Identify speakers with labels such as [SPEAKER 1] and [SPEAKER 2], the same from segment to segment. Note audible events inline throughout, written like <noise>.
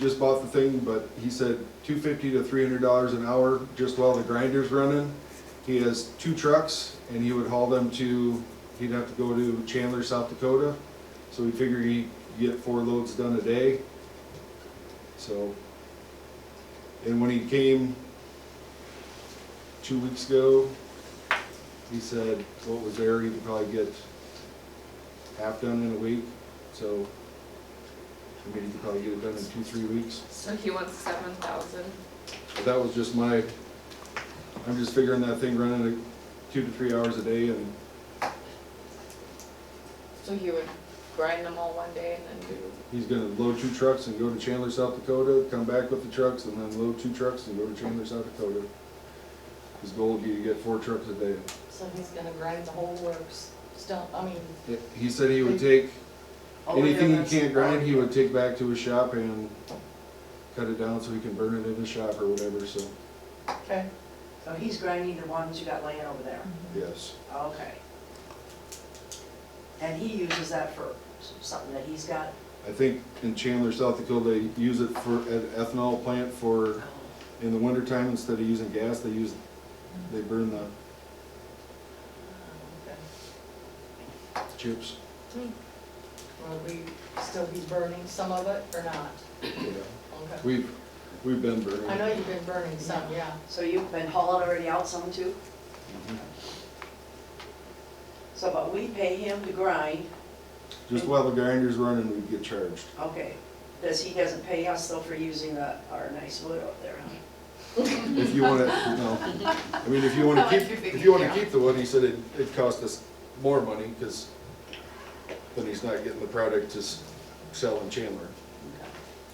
[SPEAKER 1] just bought the thing, but he said two fifty to three hundred dollars an hour just while the grinder's running. He has two trucks and he would haul them to, he'd have to go to Chandler, South Dakota. So we figure he'd get four loads done a day. So. And when he came two weeks ago, he said what was there, he could probably get half done in a week. So, I mean, he could probably get it done in two, three weeks.
[SPEAKER 2] So he wants seven thousand.
[SPEAKER 1] But that was just my, I'm just figuring that thing running at two to three hours a day and,
[SPEAKER 2] So he would grind them all one day and then do.
[SPEAKER 1] He's gonna load two trucks and go to Chandler, South Dakota, come back with the trucks, and then load two trucks and go to Chandler, South Dakota. His goal would be to get four trucks a day.
[SPEAKER 3] So he's gonna grind the whole works, still, I mean.
[SPEAKER 1] He said he would take,
[SPEAKER 4] Oh,
[SPEAKER 3] all the
[SPEAKER 1] anything he
[SPEAKER 3] others-
[SPEAKER 1] can't grind, he would take back to his shop and cut it down so he can burn it in his shop or whatever, so,
[SPEAKER 3] Okay,
[SPEAKER 4] So he's grinding the ones you got laying over there,
[SPEAKER 1] yes.
[SPEAKER 4] okay. And he uses that for s- something that he's got?
[SPEAKER 1] I think in Chandler, South Dakota, they use it for, at ethanol plant for, in the wintertime, instead of using gas, they use, they burn the
[SPEAKER 3] okay.
[SPEAKER 1] chips.
[SPEAKER 3] Will we still be burning some of it or not?
[SPEAKER 1] Yeah.
[SPEAKER 3] Okay.
[SPEAKER 1] We've, we've been burning.
[SPEAKER 3] I know you've been burning some, yeah.
[SPEAKER 4] So you've been hauling already out some too?
[SPEAKER 1] Mhm.
[SPEAKER 4] So, but we pay him to grind,
[SPEAKER 1] Just while the grinder's running, we get charged.
[SPEAKER 4] okay. Does, he doesn't pay us though for using the, our nice wood up there, huh?
[SPEAKER 1] If you wanna, no, I mean, if you wanna
[SPEAKER 2] I like
[SPEAKER 1] keep,
[SPEAKER 2] your figure,
[SPEAKER 1] if you wanna
[SPEAKER 2] yeah.
[SPEAKER 1] keep the wood, he said it, it cost us more money, cause then he's not getting the product to s- sell in Chandler.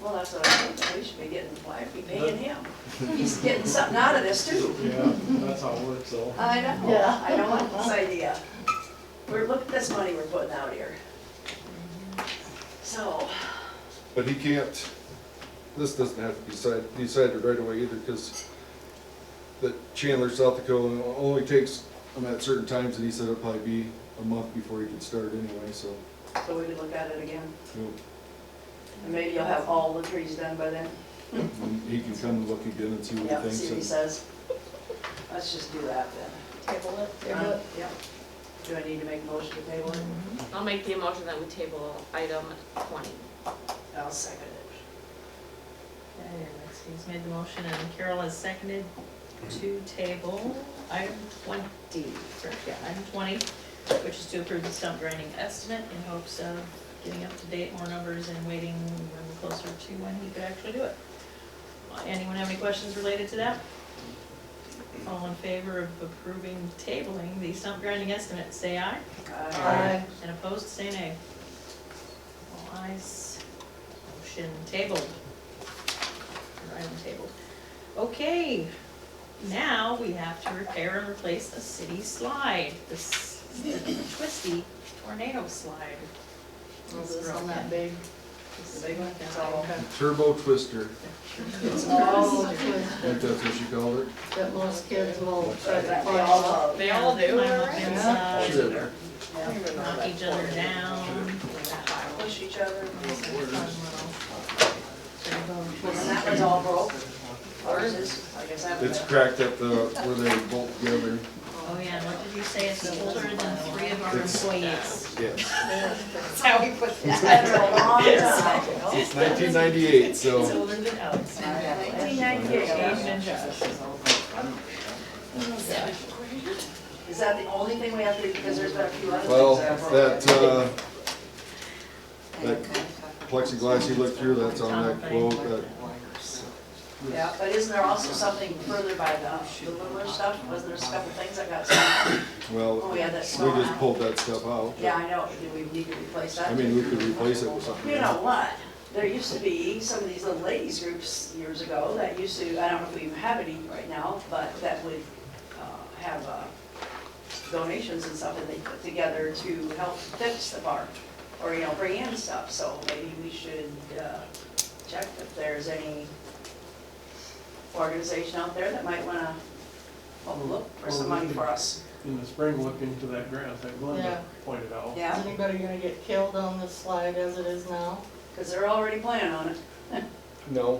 [SPEAKER 4] Well, that's what I think, we should be getting, why are we
[SPEAKER 1] <laughs>
[SPEAKER 4] paying him? He's getting something out of this too.
[SPEAKER 5] Yeah, that's how it works, so.
[SPEAKER 4] I know,
[SPEAKER 3] Yeah.
[SPEAKER 4] I don't like this idea. We're, look at this money we're putting out here. So,
[SPEAKER 1] But he can't, this doesn't have to be decided, decided right away either, cause the Chandler, South Dakota only takes him at certain times, and he said it'll probably be a month before he can start anyway, so.
[SPEAKER 4] so we can look at it again,
[SPEAKER 1] you
[SPEAKER 4] and maybe you'll have all the trees done by then.
[SPEAKER 1] know, He can come and look again and see what
[SPEAKER 4] Yep,
[SPEAKER 1] he
[SPEAKER 4] see what he
[SPEAKER 1] thinks.
[SPEAKER 4] says. Let's just do that
[SPEAKER 3] Table it,
[SPEAKER 4] then.
[SPEAKER 3] table it.
[SPEAKER 4] Yep. Do I need to make a motion to table it?
[SPEAKER 2] I'll make the motion that we table item twenty.
[SPEAKER 4] I'll second it.
[SPEAKER 6] Okay, Lexi's made the motion and Carol has seconded to table item twenty, or, yeah, item twenty, which is to approve the stump grinding estimate in hopes of getting up to date more numbers and waiting when closer to when he could actually do it. Uh, Anyone have any questions related to that? All in favor of approving tabling the stump grinding estimate, say aye.
[SPEAKER 4] Aye.
[SPEAKER 6] And opposed, say nay. All ayes, motion tabled. Or item tabled. Okay, now we have to repair and replace a city slide, this twisty tornado slide.
[SPEAKER 3] Is this one that big?
[SPEAKER 6] This
[SPEAKER 4] The big one?
[SPEAKER 6] Yeah.
[SPEAKER 4] It's all-
[SPEAKER 1] Turbo twister,
[SPEAKER 4] It's all,
[SPEAKER 3] Oh,
[SPEAKER 1] I
[SPEAKER 3] twist
[SPEAKER 1] think that's what you called it.
[SPEAKER 3] that most kids will try to
[SPEAKER 4] that we
[SPEAKER 3] climb
[SPEAKER 4] all
[SPEAKER 3] up.
[SPEAKER 4] love.
[SPEAKER 2] They all do,
[SPEAKER 6] Climb up
[SPEAKER 2] right?
[SPEAKER 6] and,
[SPEAKER 3] Yeah.
[SPEAKER 6] uh,
[SPEAKER 1] Sure.
[SPEAKER 4] Yeah.
[SPEAKER 6] knock each other down.
[SPEAKER 4] Push each other.
[SPEAKER 6] Fun little-
[SPEAKER 4] And that one's all broke. Ours is, I guess that
[SPEAKER 1] It's
[SPEAKER 4] <laughs> was.
[SPEAKER 1] cracked at the, where they bolt together.
[SPEAKER 6] Oh, yeah, and what did you say, it's older than three of our
[SPEAKER 1] It's-
[SPEAKER 6] employees?
[SPEAKER 1] Yes.
[SPEAKER 6] That's how we put that.
[SPEAKER 4] That's a long time ago.
[SPEAKER 1] <laughs> It's nineteen ninety-eight,
[SPEAKER 6] It's
[SPEAKER 1] so
[SPEAKER 6] older than Alex.
[SPEAKER 4] Nineteen ninety-eight.
[SPEAKER 6] and Josh.
[SPEAKER 4] Is that the only thing we have to, because there's been a few other things.
[SPEAKER 1] well,
[SPEAKER 4] that are broken.
[SPEAKER 1] that uh, that plexiglass you looked through, that's on that quote. That,
[SPEAKER 4] Yeah, but isn't there also something further by the, the Loomer stuff? Wasn't there a couple things that got stolen?
[SPEAKER 1] well,
[SPEAKER 4] Oh,
[SPEAKER 1] we
[SPEAKER 4] yeah, that's small.
[SPEAKER 1] just pulled that stuff out.
[SPEAKER 4] Yeah, I know. Do we need to replace that?
[SPEAKER 1] I mean, we could replace it with something.
[SPEAKER 4] You
[SPEAKER 1] else.
[SPEAKER 4] know what? There used to be some of these little ladies groups years ago that used to, I don't know if we even have any right now, but that would uh, have uh, donations and stuff that they put together to help fix the park or, you know, bring in stuff. So maybe we should uh, check if there's any organization out there that might want to look for some money for us.
[SPEAKER 5] In the spring, look into that grass that
[SPEAKER 3] Yeah.
[SPEAKER 5] Glenda pointed out.
[SPEAKER 4] Yeah,
[SPEAKER 3] Is anybody gonna get killed on this slide as it is now?
[SPEAKER 4] because they're already planning on it.
[SPEAKER 1] No,